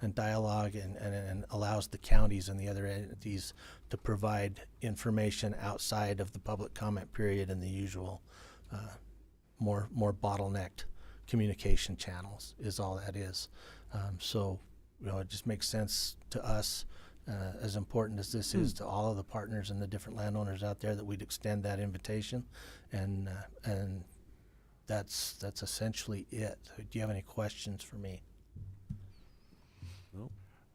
and dialogue and, and, and allows the counties and the other entities to provide information outside of the public comment period and the usual, uh, more, more bottlenecked communication channels is all that is. Um, so, you know, it just makes sense to us, uh, as important as this is to all of the partners and the different landowners out there, that we'd extend that invitation. And, uh, and that's, that's essentially it. Do you have any questions for me?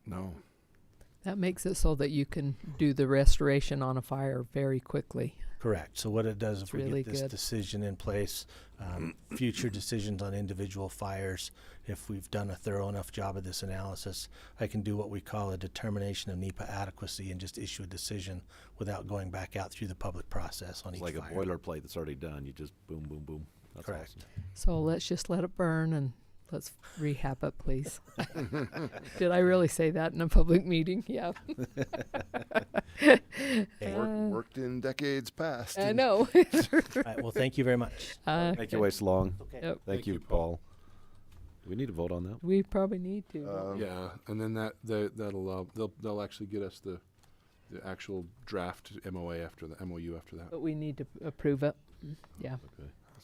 No. That makes it so that you can do the restoration on a fire very quickly. Correct. So what it does, if we really get this good. decision in place, um, future decisions on individual fires, if we've done a thorough enough job of this analysis, I can do what we call a determination of NEPA adequacy and just issue a decision without going back out through the public process on It's each like a fire. boilerplate that's already done. You just boom, boom, boom. That's Correct. So let's just let it burn and let's rehab it, please. Did I really say that in a public meeting? Yeah, Work, worked in decades past. Uh, I and know. All right. Well, thank you very much. Uh, awesome. Make your waste long. Okay. yep, Thank you, Paul. Do we need to vote on that? We probably need to. don't Uh, um, we? Yeah, and then that, that that'll uh, they'll they'll actually get us the the actual draft MOA after the MOU after that. But we need to approve it. Yeah.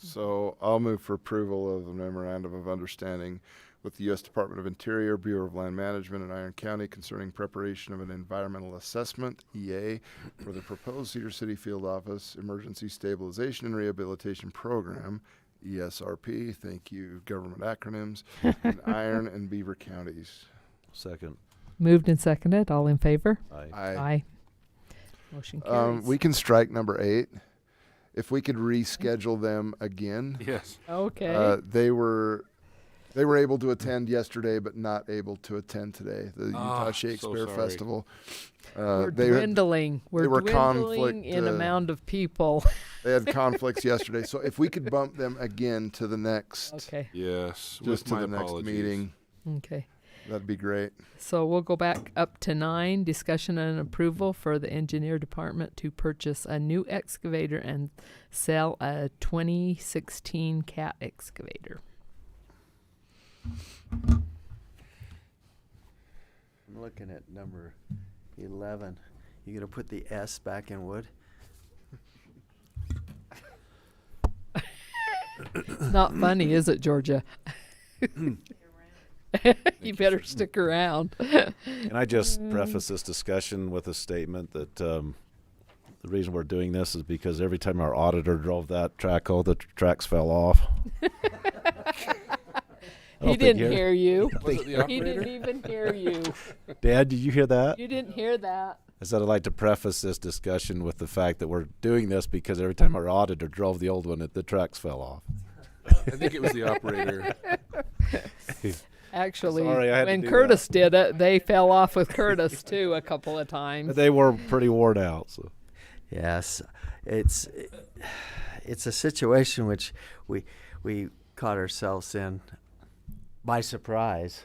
So I'll move for approval of the memorandum of understanding with the U.S. Department of Interior, Bureau of Land Management, and Iron County concerning preparation of an environmental assessment (EA) for the proposed Cedar City Field Office Emergency Stabilization and Rehabilitation Program E (ESRP). Thank you, government acronyms. in Iron and Beaver counties. Second. Moved and seconded. All in favor? Aye. I Aye. Motion carries. Um, we can strike number eight. If we could reschedule them again, Yes. okay. uh, they were they were able to attend yesterday, but not able to attend today. The Utah Ah, so Shakespeare sorry. Festival. Uh, We're they dwindling. We're were dwindling in conflict, uh, amount of people. they had conflicts yesterday, so if we could bump them again to the next, okay. Yes. just with to my the next apologies. meeting, Okay. that'd be great. So we'll go back up to nine, discussion and approval for the engineer department to purchase a new excavator and sell a twenty sixteen cat excavator. I'm looking at number eleven. You gonna put the S back in wood? It's not funny, is it, Georgia? You better stick around. Can I just Mm. preface this discussion with a statement that um, the reason we're doing this is because every time our auditor drove that track, all the tr- tracks fell off. I He don't think didn't he- hear you. Was it the He operator? didn't even hear you. Dad, did you hear that? You didn't hear that. I said I'd like to preface this discussion with the fact that we're doing this because every time our auditor drove the old one, it, the tracks fell off. I think it was the operator. Actually, Sorry, I had to when do Curtis did it, they fell off with Curtis too a couple of times. But they were pretty worn out. So Yes, it's it's a situation which we we caught ourselves in by surprise.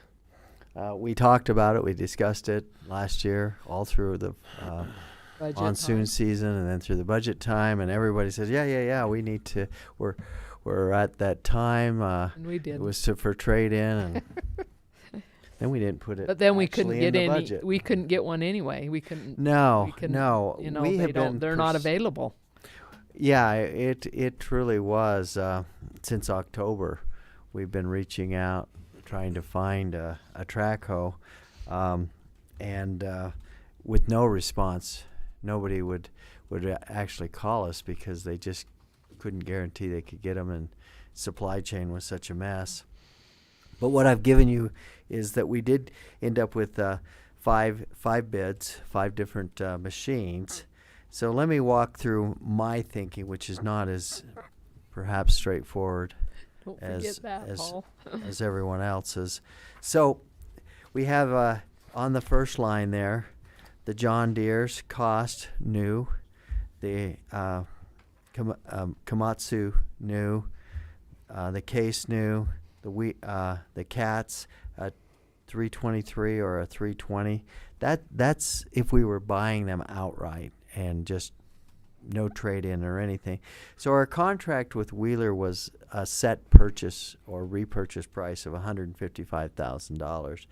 Uh, we talked about it. We discussed it last year, all through the uh, Budget monsoon time. season, and then through the budget time. And everybody says, "Yeah, yeah, yeah. We need to. We're we're at that time. Uh, And we did. It was to, for trade in, and then we didn't put it. But then we couldn't actually get in the any. budget. We couldn't get one anyway. We couldn't. no, we couldn't, no, you know, we they have don't. been. They're not pers- available. Yeah, it it truly was uh, since October. We've been reaching out, trying to find a, a track hoe, um, and uh, with no response, nobody would would a- actually call us because they just couldn't guarantee they could get them, and supply chain was such a mess. But what I've given you is that we did end up with uh, five five bids, five different uh, machines. So let me walk through my thinking, which is not as perhaps straightforward Don't as forget that, as, Paul. as everyone else's. So we have uh, on the first line there, the John Deere's cost new, the uh, Kam- um, Komatsu new, uh, the Case new, the we uh, the Cats a 323 or a 320. That that's if we were buying them outright and just no trade in or anything. So our contract with Wheeler was a set purchase or repurchase price of $155,000.